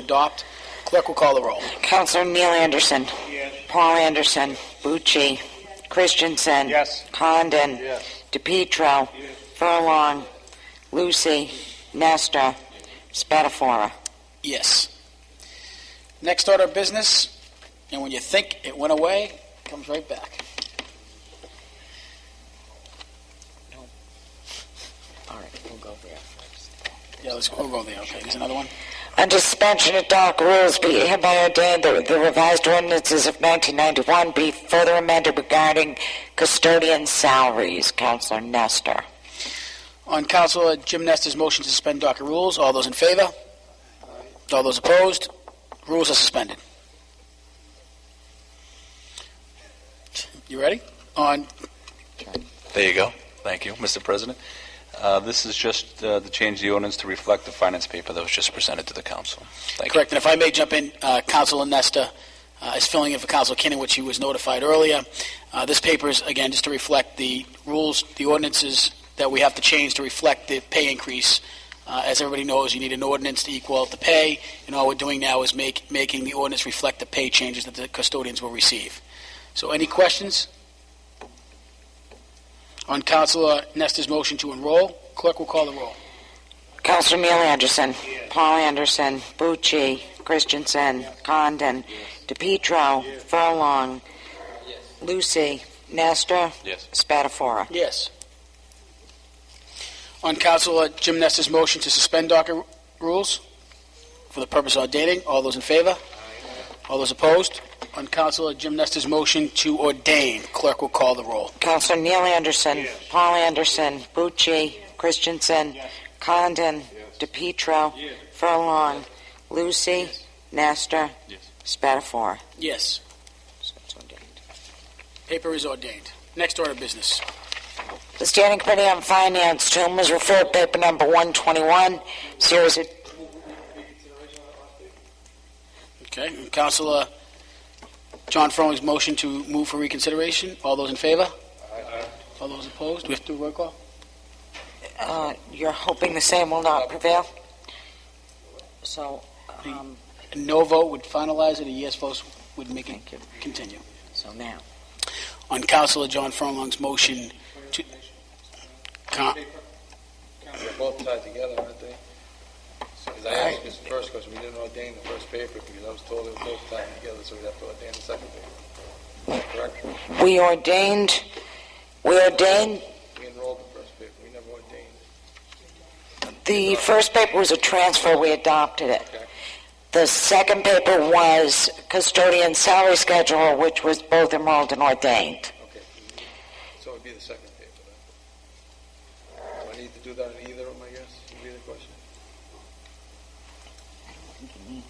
to adopt. Clerk will call the roll. Counselor Neil Anderson. Yes. Paul Anderson. Bucci. Christensen. Yes. Condon. Yes. DePietro. Furlong. Lucy. Nestor. Spatafora. Yes. Next order of business, and when you think it went away, it comes right back. All right, we'll go there first. Yeah, let's, we'll go there, okay. There's another one? Under suspension of dark rules, be it hereby ordained that the revised ordinances of 1991 be further amended regarding custodian salaries. Counselor Nestor. On Council Jim Nestor's motion to suspend docket rules, all those in favor? All those opposed? Rules are suspended. You ready? On, There you go. Thank you, Mr. President. Uh, This is just uh, to change the ordinance to reflect the finance paper that was just presented to the council. Thank you. correct, and if I may jump in, uh, Council Nestor uh, is filling in for Council Kinnon, which he was notified earlier. Uh, This paper is, again, just to reflect the rules, the ordinances that we have to change to reflect the pay increase. Uh, As everybody knows, you need an ordinance to equal out the pay, and all we're doing now is make, making the ordinance reflect the pay changes that the custodians will receive. So any questions on Councilor Nestor's motion to enroll? Clerk will call the roll. Counselor Neil Anderson. Paul Anderson. Bucci. Christensen. Condon. DePietro. Furlong. Lucy. Nestor. Yes. Spatafora. Yes. On Councilor Jim Nestor's motion to suspend docket rules for the purpose of ordaining, all those in favor? All those opposed? On Councilor Jim Nestor's motion to ordain, clerk will call the roll. Counselor Neil Anderson. Yes. Paul Anderson. Bucci. Christensen. Yes. Condon. Yes. DePietro. Yes. Furlong. Lucy. Nestor. Yes. Spatafora. Yes. So it's ordained. Paper is ordained. Next order of business. The Standing Committee on Finance, to whom was referred paper number 121, series of Okay, and Councilor John Frolling's motion to move for reconsideration, all those in favor? All those opposed? We have to do a roll call? Uh, you're hoping the same will not prevail? So, um, A no vote would finalize it, a yes vote would make it thank you. continue. So now, on Councilor John Furlong's motion to... Con- They're both tied together, aren't they? Because I asked this first question, we didn't ordain the first paper because I was told they were both tied together, so we'd have to ordain the second paper. Correct? we ordained, we ordained, We enrolled the first paper, we never ordained. the first paper was a transfer, we adopted it. The second paper was custodian salary schedule, which was both enrolled and ordained. Okay. So it'd be the second paper then. Do I need to do that in either of them, I guess, would be the question?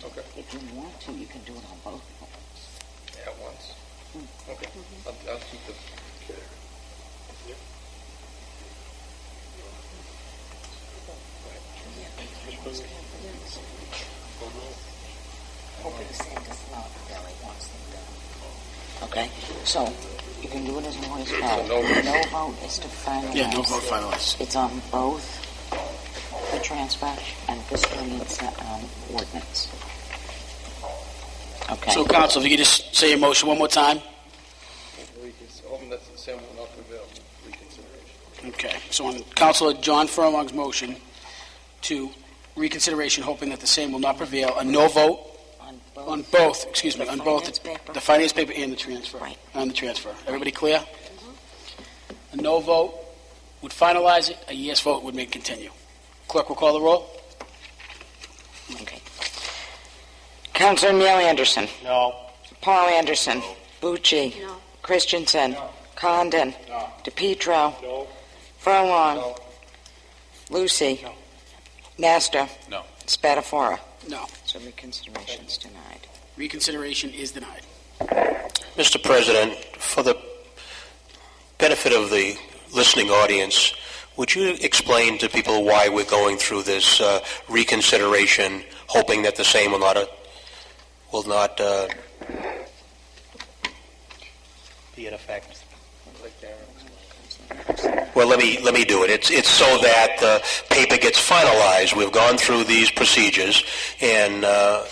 Okay. If you want to, you can do it on both. At once? Okay. I'll, I'll keep the. Okay, so you can do it as one as well. No vote. No vote is to finalize. Yeah, no vote finalized. It's on both the transfer and custodian um, ordinance. Okay. So, Council, if you could just say your motion one more time? Recon- Hoping that's the same will not prevail, reconsideration. Okay. So on Councilor John Furlong's motion to reconsideration, hoping that the same will not prevail, a no vote On on both. both, excuse me, The on both finance paper. the finance paper and the transfer. Right. On the transfer. Everybody clear? A no vote would finalize it, a yes vote would make it continue. Clerk will call the roll? Okay. Counselor Neil Anderson. No. Paul Anderson. Bucci. Christensen. Condon. No. DePietro. No. Furlong. No. Lucy. Nestor. No. Spatafora. No. So reconsideration is denied. Reconsideration is denied. Mr. President, for the benefit of the listening audience, would you explain to people why we're going through this uh, reconsideration, hoping that the same will not, uh, will not uh, be in effect? Like Darren. Counselor Anderson. Well, let me, let me do it. It's, it's so that the paper gets finalized. We've gone through these procedures, and uh,